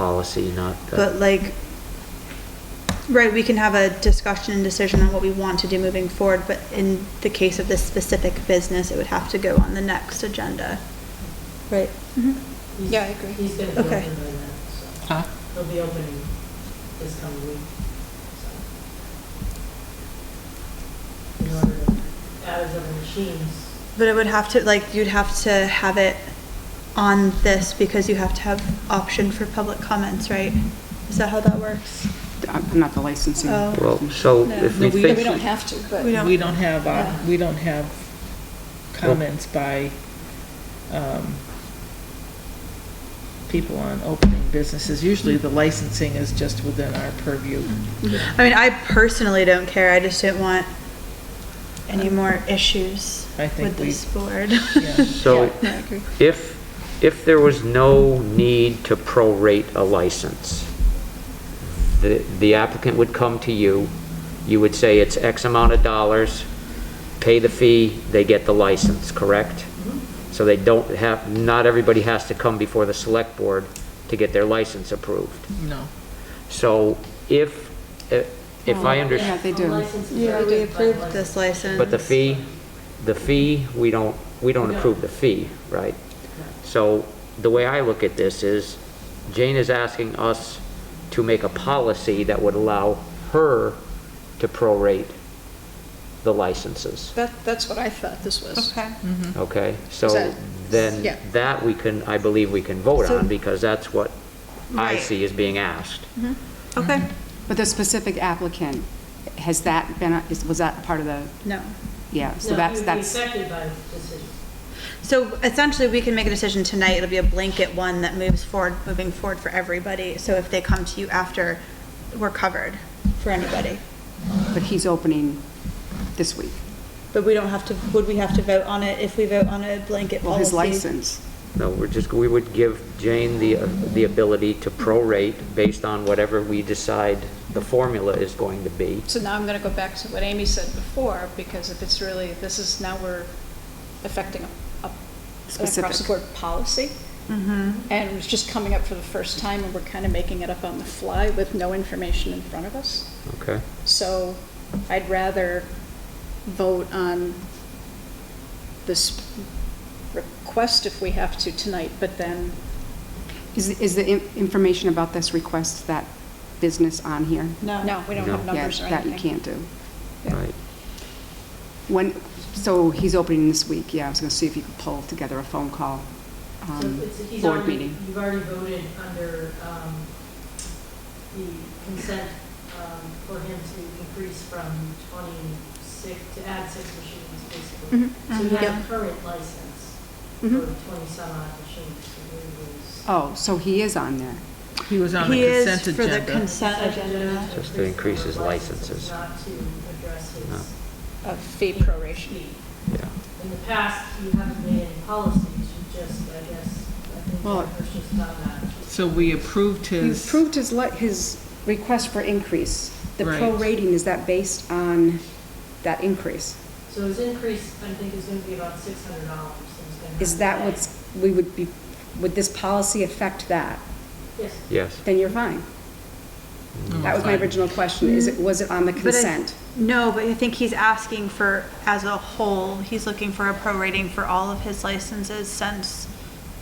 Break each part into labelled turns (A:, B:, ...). A: policy, not. a-
B: But like, right, we can have a discussion and decision on what we want to do moving forward, but in the case of this specific business, it would have to go on the next agenda. Mm-hmm.
C: Right.
D: Yeah, I agree.
E: He's going to be
B: Okay.
E: opening that,
D: Huh?
E: so he'll be opening this coming week. so. In order to, out of the machines,
B: But it would have to, like, you'd have to have it on this because you have to have option for public comments, right? Is that how that works?
F: I'm I'm not the licensing.
B: Oh.
A: Well, so if we
C: No,
A: think.
C: We don't have to, but.
B: We don't-
D: We don't have, uh,
C: Yeah.
D: we don't have comments by um, people on opening businesses. Usually the licensing is just within our purview.
B: I mean, I personally don't care, I just didn't want any more issues
D: I think
B: with
D: we-
B: this board.
D: Yeah.
A: So
C: Yeah, I agree.
A: if, if there was no need to prorate a license, the, the applicant would come to you, you would say it's X amount of dollars, pay the fee, they get the license, correct? So they don't have, not everybody has to come before the select board to get their license approved.
D: No.
A: So if, if if I
F: Well, Yeah,
A: understand,
F: they do.
E: license is
B: Yeah, we
E: already done,
B: approved this license.
A: but the fee, the fee, we don't, we don't
E: No.
A: approve the fee, right? So the way I look at this is Jane is asking us to make a policy that would allow her to prorate the licenses,
C: That, that's what I thought this was.
B: Okay.
D: Mm-hmm.
A: okay? So
C: So- yeah.
A: then that we can, I believe we can vote
B: So-
A: on because that's what I
B: Right.
A: see is being asked.
B: Okay,
C: Mm-hmm.
F: But the specific applicant, has that been, is- was that part of the,
B: no.
F: yeah, so
E: No, he would
F: that's,
E: be
F: that's,
E: affected by the decision.
B: So essentially, we can make a decision tonight, it'll be a blanket one that moves forward, moving forward for everybody. So if they come to you after, we're covered for anybody.
F: but he's opening this week.
B: But we don't have to, would we have to vote on it if we vote on a blanket
F: Well,
B: policy?
F: his license.
A: No, we're just, we would give Jane the, the ability to prorate based on whatever we decide the formula is going to be.
C: So now I'm going to go back to what Amy said before, because if it's really, this is, now we're affecting a, a
F: Specific.
C: across-the-board policy.
B: Mm-hmm.
C: And it was just coming up for the first time, and we're kind of making it up on the fly with no information in front of us.
A: Okay,
C: So I'd rather vote on this request if we have to tonight, but then
F: Is, is the in- information about this request, that business on here?
C: No, we don't have
A: No.
C: numbers or
F: Yeah,
C: anything.
F: that you can't do.
C: Yeah.
A: right.
F: When, so he's opening this week, yeah, I was gonna see if you could pull together a phone call,
E: So
F: um,
E: it's- he's
F: board
E: already-
F: meeting.
E: You've already voted under um, the consent um, for him to increase from 26, to add six machines, basically.
B: Mhm.
F: Mm-hmm.
E: So he has
B: Yep.
E: a current license for
F: Mhm.
E: 20-some odd machines. so he was-
F: Oh, so he is on there.
D: He was on the
B: He is
D: consent
B: for the
D: agenda.
B: consent
E: Consent
B: agenda.
A: Just to increase his
E: the number of
A: licenses.
E: Not to address
A: No.
E: his
C: A fee proration.
E: fee.
A: Yeah.
E: In the past, you haven't made any policies, you just, I guess, I think
F: Well-
E: Jennifer's just done that.
D: So we approved
F: You
D: his,
F: approved his, li- his request for increase. The
D: Right.
F: prorating, is that based on that increase?
E: So his increase, I think, is going to be about six hundred dollars.
F: Is that what's, we would be, would this policy affect that?
E: Yes,
A: Yes.
F: Then you're fine. That was my
D: Hmm, fine.
F: original question, is it, was it on the
B: But I-
F: consent?
B: No, but I think he's asking for, as a whole, he's looking for a prorating for all of his licenses since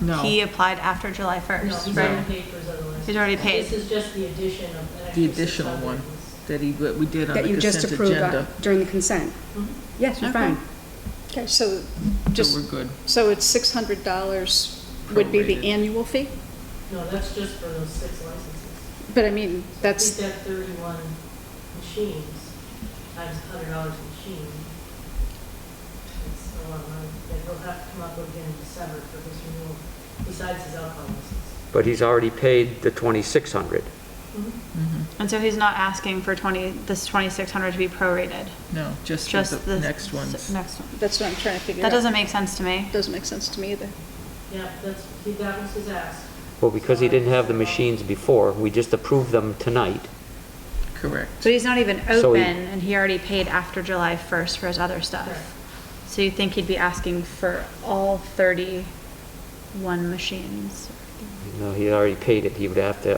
D: No.
B: he applied after July
E: no,
B: 1st,
E: he's
B: right?
E: already paid for his other license.
B: He's already paid.
E: This is just the addition of an extra
D: the additional
E: $600.
D: one that he, that we did on
F: That
D: the
F: you just
D: consent
F: approved uh,
D: agenda.
F: on- during the consent?
E: Mm-hmm.
F: Yes, you're
C: Okay.
F: fine.
C: Okay, so
D: So we're
C: just,
D: good.
C: so it's six hundred dollars would be
D: Prorated.
C: the annual fee?
E: No, that's just for those six licenses.
C: But I mean,
E: So
C: that's,
E: If he's got thirty-one machines, times hundred dollars a machine, it's a lot of money that he'll have to come up with again in December for his renewal, besides his alcohol license. Mm-hmm.
A: But he's already paid the 2,600.
D: Mm-hmm.
B: And so he's not asking for 20, this 2,600 to be prorated,
D: No, just for
B: just
D: the
B: the.
D: next ones.
B: s- Next one.
C: that's what I'm trying to figure out.
B: That doesn't make sense to me.
C: Doesn't make sense to me either.
E: Yeah, that's, he- that was his ask.
A: Well, because he didn't have the machines before, we just approved them tonight.
D: Correct.
B: But he's not even
A: So
B: open
A: he-
B: and he already paid after July 1st for his other stuff. So you think he'd be asking for all 31 machines?
A: No, he already paid it, he would have to